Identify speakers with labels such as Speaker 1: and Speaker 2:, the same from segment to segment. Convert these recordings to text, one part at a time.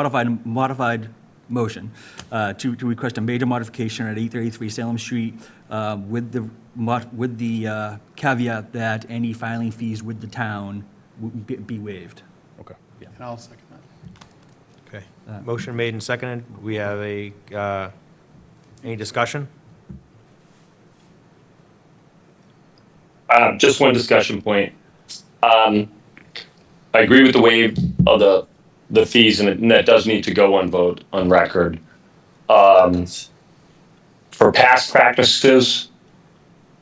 Speaker 1: modified, modified motion uh, to, to request a major modification at 833 Salem Street uh, with the, mod- with the uh, caveat that any filing fees with the town would be- be waived.
Speaker 2: Okay.
Speaker 3: And I'll second that.
Speaker 4: Okay.
Speaker 1: Uh,
Speaker 4: Motion made and seconded. We have a, uh, any discussion?
Speaker 5: Um, just one discussion point. Um, I agree with the waive of the, the fees and it- and that does need to go on vote on record. Um, for past practices,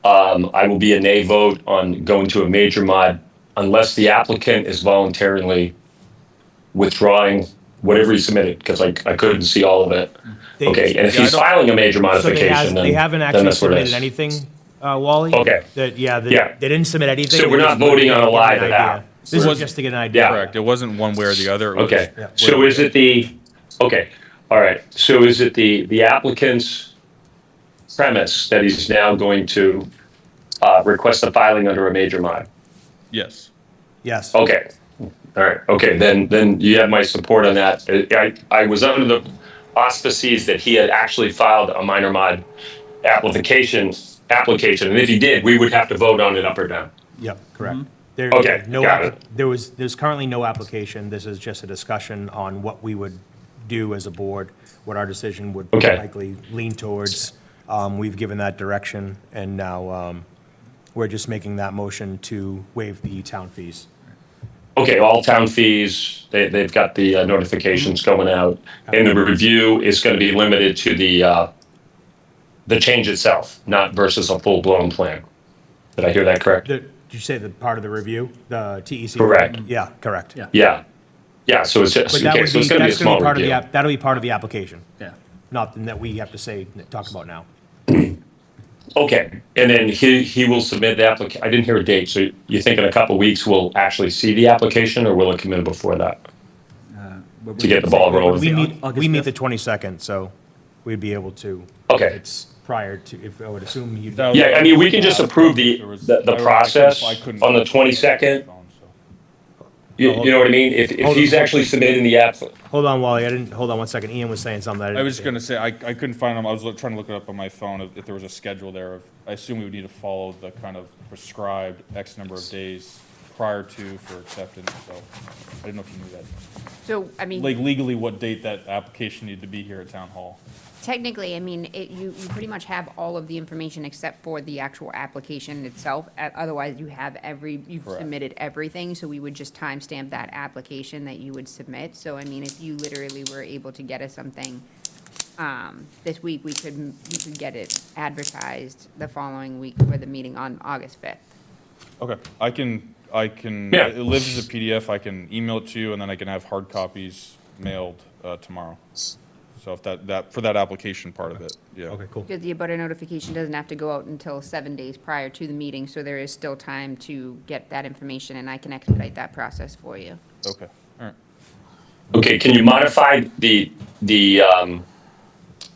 Speaker 5: um, I will be a nay vote on going to a major mod unless the applicant is voluntarily withdrawing whatever he submitted, because I, I couldn't see all of it.
Speaker 4: They-
Speaker 5: Okay, and if
Speaker 4: yeah, I
Speaker 5: he's
Speaker 4: don't-
Speaker 5: filing a
Speaker 4: So
Speaker 5: major
Speaker 4: they has-
Speaker 5: modification, then
Speaker 4: They haven't
Speaker 5: then
Speaker 4: actually
Speaker 5: that's what
Speaker 4: submitted
Speaker 5: it is.
Speaker 4: anything, uh, Wally?
Speaker 5: Okay.
Speaker 4: That, yeah, they,
Speaker 5: Yeah.
Speaker 4: they didn't submit anything.
Speaker 5: So we're
Speaker 4: They
Speaker 5: not
Speaker 4: just wanted
Speaker 5: voting
Speaker 4: to
Speaker 5: on a
Speaker 4: get an
Speaker 5: lie to
Speaker 4: idea.
Speaker 5: that.
Speaker 4: This is
Speaker 2: Wasn't-
Speaker 4: just to get an idea.
Speaker 5: Yeah.
Speaker 2: Correct. It wasn't one way or the other. It was-
Speaker 5: Okay,
Speaker 4: Yeah.
Speaker 5: so is it the, okay, all right, so is it the, the applicant's premise that he's now going to uh, request a filing under a major mod?
Speaker 2: Yes.
Speaker 4: Yes.
Speaker 5: Okay, all right, okay, then, then you have my support on that. I, I I was under the auspices that he had actually filed a minor mod application, application, and if he did, we would have to vote on it up or down.
Speaker 4: Yep, correct. There,
Speaker 5: Okay,
Speaker 4: no,
Speaker 5: got
Speaker 4: app-
Speaker 5: it.
Speaker 4: there was, there's currently no application. This is just a discussion on what we would do as a board, what our decision would
Speaker 5: Okay.
Speaker 4: likely lean towards. Um, We've given that direction, and now um, we're just making that motion to waive the town fees.
Speaker 5: Okay, all town fees, they, they've got the uh, notifications going out, and the review is gonna be limited to the, uh, the change itself, not versus a full-blown plan. Did I hear that correct?
Speaker 4: The- Did you say the part of the review, the TEC?
Speaker 5: Correct.
Speaker 4: Yeah, correct.
Speaker 1: Yeah.
Speaker 5: Yeah, yeah, so it's, just-
Speaker 4: But that
Speaker 5: okay,
Speaker 4: would
Speaker 5: so
Speaker 4: be,
Speaker 5: it's gonna be a
Speaker 4: that's going to
Speaker 5: small
Speaker 4: be part of the,
Speaker 5: review.
Speaker 4: app. that'll be part of the application,
Speaker 1: Yeah.
Speaker 4: nothing that we have to say, talk about now.
Speaker 5: Okay, and then he, he will submit the applica, I didn't hear a date, so you think in a couple weeks we'll actually see the application, or will it come in before that?
Speaker 1: But
Speaker 5: To
Speaker 1: we're-
Speaker 5: get the ball rolling.
Speaker 4: We
Speaker 1: Au-
Speaker 4: meet,
Speaker 1: August
Speaker 4: we meet the
Speaker 1: fifth?
Speaker 4: 22nd, so we'd be able to.
Speaker 5: Okay.
Speaker 4: if It's prior to, if, I would assume you.
Speaker 2: That was-
Speaker 5: Yeah, I mean, we can just approve the,
Speaker 2: There was-
Speaker 5: the
Speaker 2: I
Speaker 5: the
Speaker 2: couldn't-
Speaker 5: process
Speaker 2: I couldn't-
Speaker 5: on the twenty-second, you, you know what I mean? If, if
Speaker 4: Hold
Speaker 5: he's
Speaker 4: on.
Speaker 5: actually submitting the app,
Speaker 4: Hold on, Wally, I didn't, hold on one second, Ian was saying something.
Speaker 2: I was just gonna say, I, I couldn't find them. I was look- trying to look it up on my phone if, if there was a schedule there. of- I assume we would need to follow the kind of prescribed X number of days prior to for acceptance, so I didn't know if you knew that.
Speaker 6: So, I mean,
Speaker 2: Like legally, what date that application needed to be here at town hall?
Speaker 6: technically, I mean, it, you, you pretty much have all of the information except for the actual application itself. Uh, Otherwise, you have every, you've
Speaker 2: Correct.
Speaker 6: submitted everything, so we would just timestamp that application that you would submit. So, I mean, if you literally were able to get us something, um, this week, we could, we could get it advertised the following week for the meeting on August fifth.
Speaker 2: Okay, I can, I can,
Speaker 5: Yeah.
Speaker 2: it lives as a PDF, I can email it to you, and then I can have hard copies mailed uh, tomorrow. So if that, that, for that application part of it, yeah.
Speaker 4: Okay, cool.
Speaker 6: Because the abutter notification doesn't have to go out until seven days prior to the meeting, so there is still time to get that information, and I can expedite that process for you.
Speaker 2: Okay, all right.
Speaker 5: okay, can you modify the, the, um,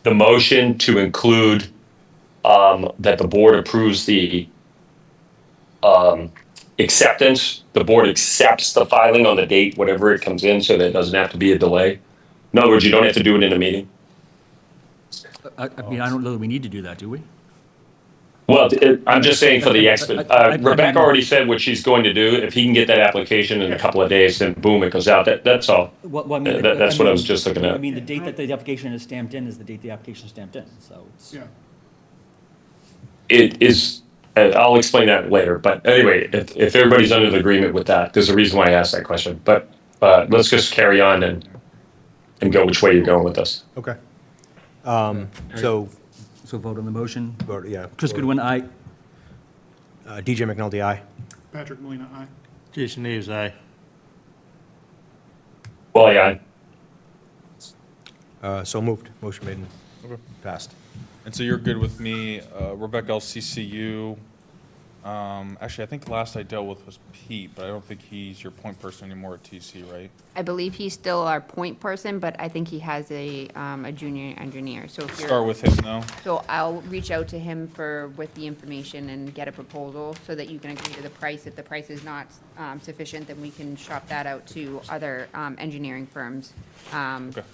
Speaker 5: the motion to include, um, that the board approves the, um, acceptance? The board accepts the filing on the date, whatever it comes in, so that it doesn't have to be a delay? In other words, you don't have to do it in a meeting?
Speaker 1: I I mean, I don't know that we need to do that, do we?
Speaker 5: Well, it- I'm just saying for the expert,
Speaker 1: I- I- I- I-
Speaker 5: uh, Rebecca already said what she's going to do. If he can get that application in a couple of days, then boom, it goes out. That, that's all.
Speaker 7: Well, well, I mean,
Speaker 5: Uh, that- that's what I was just looking at.
Speaker 7: I mean, the date that the application is stamped in is the date the application is stamped in, so it's.
Speaker 3: Yeah.
Speaker 5: It is, uh, I'll explain that later, but anyway, if, if everybody's under the agreement with that, there's a reason why I asked that question. But, uh, let's just carry on and, and go which way you're going with this.
Speaker 4: Okay. Um, so,
Speaker 1: So vote on the motion.
Speaker 4: vote- yeah.
Speaker 1: Chris Goodwin, aye.
Speaker 4: Uh, DJ McNulty, aye.
Speaker 3: Patrick Molina, aye.
Speaker 8: Jason Neves, aye.
Speaker 5: Well, yeah,
Speaker 4: Uh, so moved, motion made and passed.
Speaker 2: And so you're good with me, uh, Rebecca, I'll CC you Um, actually, I think last I dealt with was Pete, but I don't think he's your point person anymore at TC, right?
Speaker 6: I believe he's still our point person, but I think he has a, um, a junior engineer, so if you're.
Speaker 2: Start with him though.
Speaker 6: So I'll reach out to him for, with the information and get a proposal so that you can agree to the price. If the price is not um, sufficient, then we can shop that out to other um, engineering firms. um,
Speaker 2: Okay.